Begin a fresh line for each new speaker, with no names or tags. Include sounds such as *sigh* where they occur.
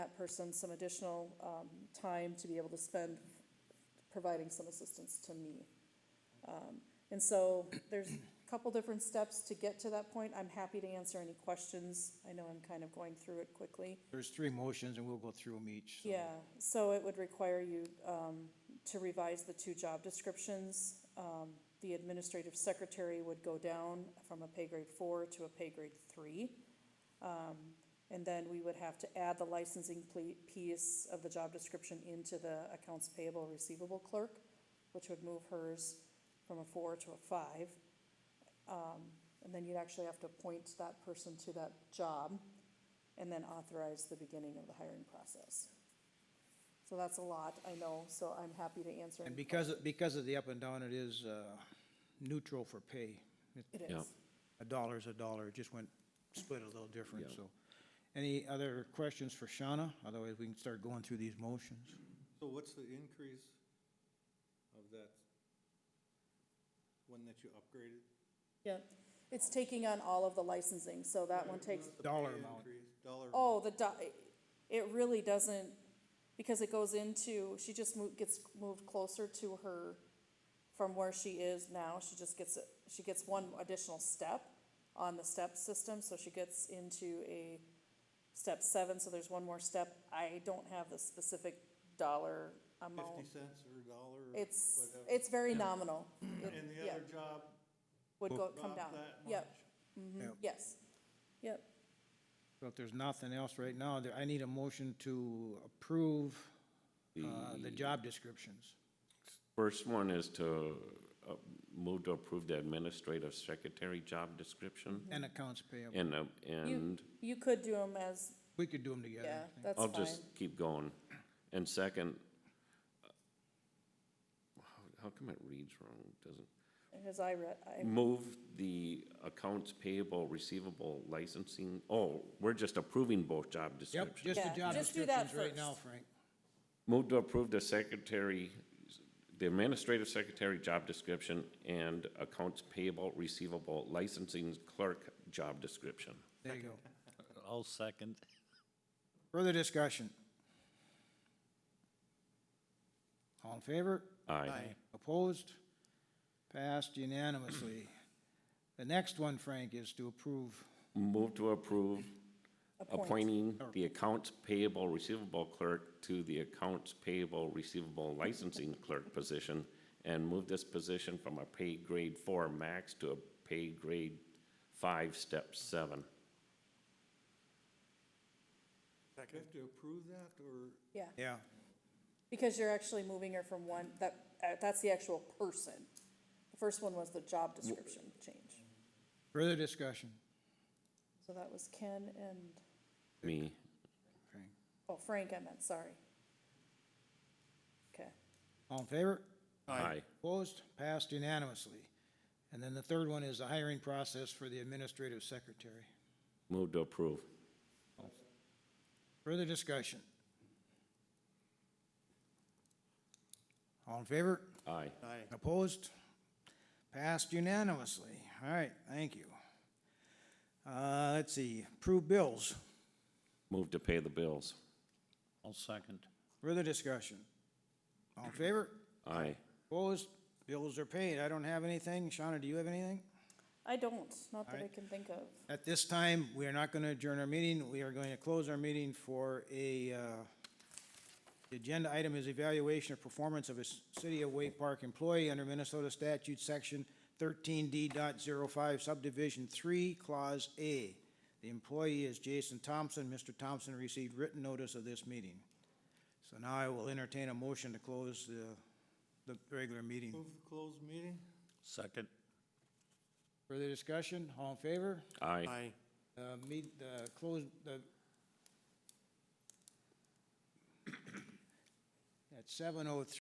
person some additional, um, time to be able to spend providing some assistance to me. Um, and so there's a couple different steps to get to that point. I'm happy to answer any questions. I know I'm kind of going through it quickly.
There's three motions and we'll go through them each. so-
Yeah, so it would require you um, to revise the two job descriptions. Um, The administrative secretary would go down from a pay grade four to a pay grade three. Um, And then we would have to add the licensing ple- piece of the job description into the accounts payable receivable clerk, which would move hers from a four to a five. Um, And then you'd actually have to appoint that person to that job and then authorize the beginning of the hiring process. So that's a lot, I know, so I'm happy to answer.
And
any
because, because of the up and down, it is uh, neutral for pay.
questions. It
Yeah.
is.
A dollar's a dollar, it just went, split a little different,
Yeah.
so. Any other questions for Shauna? Otherwise, we can start going through these motions.
So what's the increase of that one that you upgraded?
Yeah, it's taking on all of the licensing, so that one takes,
What's the
Dollar
pay
amount.
increase? Dollar.
oh, the, di- it really doesn't, because it goes into, she just mo- gets moved closer to her, from where she is now, she just gets, a- she gets one additional step on the step system, so she gets into a step seven, so there's one more step. I don't have the specific dollar
Fifty
amount.
cents or a dollar or
It's,
whatever.
it's very nominal. It-
And the
yeah,
other job
Would go, come
dropped
down.
that much?
Yep, Mm-hmm. yes, yep.
So if there's nothing else right now, there- I need a motion to approve uh, the job descriptions.
First one is to uh, move to approve the administrative secretary job description
And accounts payable.
and, uh,
You,
and
you could do them as,
We could do them together.
yeah,
I think.
that's
I'll
fine.
just keep going. And second, uh, how- how come it reads wrong? Doesn't,
Because I read, I,
move the accounts payable, receivable licensing, oh, we're just approving both job
Yep,
descriptions.
just the
Yeah,
job
just do that
descriptions right now,
first.
Frank.
Move to approve the secretary, the administrative secretary job description and accounts payable, receivable, licensing clerk job description.
There you go.
*laughs* I'll second.
Further discussion? All in favor?
Aye.
Opposed? Passed unanimously. The next one, Frank, is to approve,
Move to approve
Appoint.
appointing the accounts payable, receivable clerk to the accounts payable, receivable licensing clerk position and move this position from a pay grade four max to a pay grade five, step seven.
Do you have to approve that or?
yeah,
yeah,
because you're actually moving her from one, that, uh, that's the actual person. The first one was the job description change.
further discussion,
So that was Ken and,
Me,
Frank.
oh, Frank, I meant, sorry. Okay,
All in favor?
aye.
Opposed? Passed unanimously. And then the third one is the hiring process for the administrative secretary.
Move to approve.
Further discussion? All in favor?
Aye.
Aye.
Opposed? Passed unanimously. All right, thank you. Uh, let's see, approve bills.
Move to pay the bills.
I'll second.
Further discussion? All in favor?
Aye.
Opposed? Bills are paid. I don't have anything. Shauna, do you have anything?
I don't, not that I
Alright.
can think of.
At this time, we are not going to adjourn our meeting. We are going to close our meeting for a, uh, the agenda item is evaluation of performance of a s- City of Wake Park employee under Minnesota statute section thirteen d05 subdivision three, clause A. The employee is Jason Thompson. Mr. Thompson received written notice of this meeting. So now I will entertain a motion to close the, the regular meeting.
Move the closed meeting?
Second.
Further discussion? All in favor?
Aye.
Uh, meet, the close, uh, the. *coughs* At seven oh three.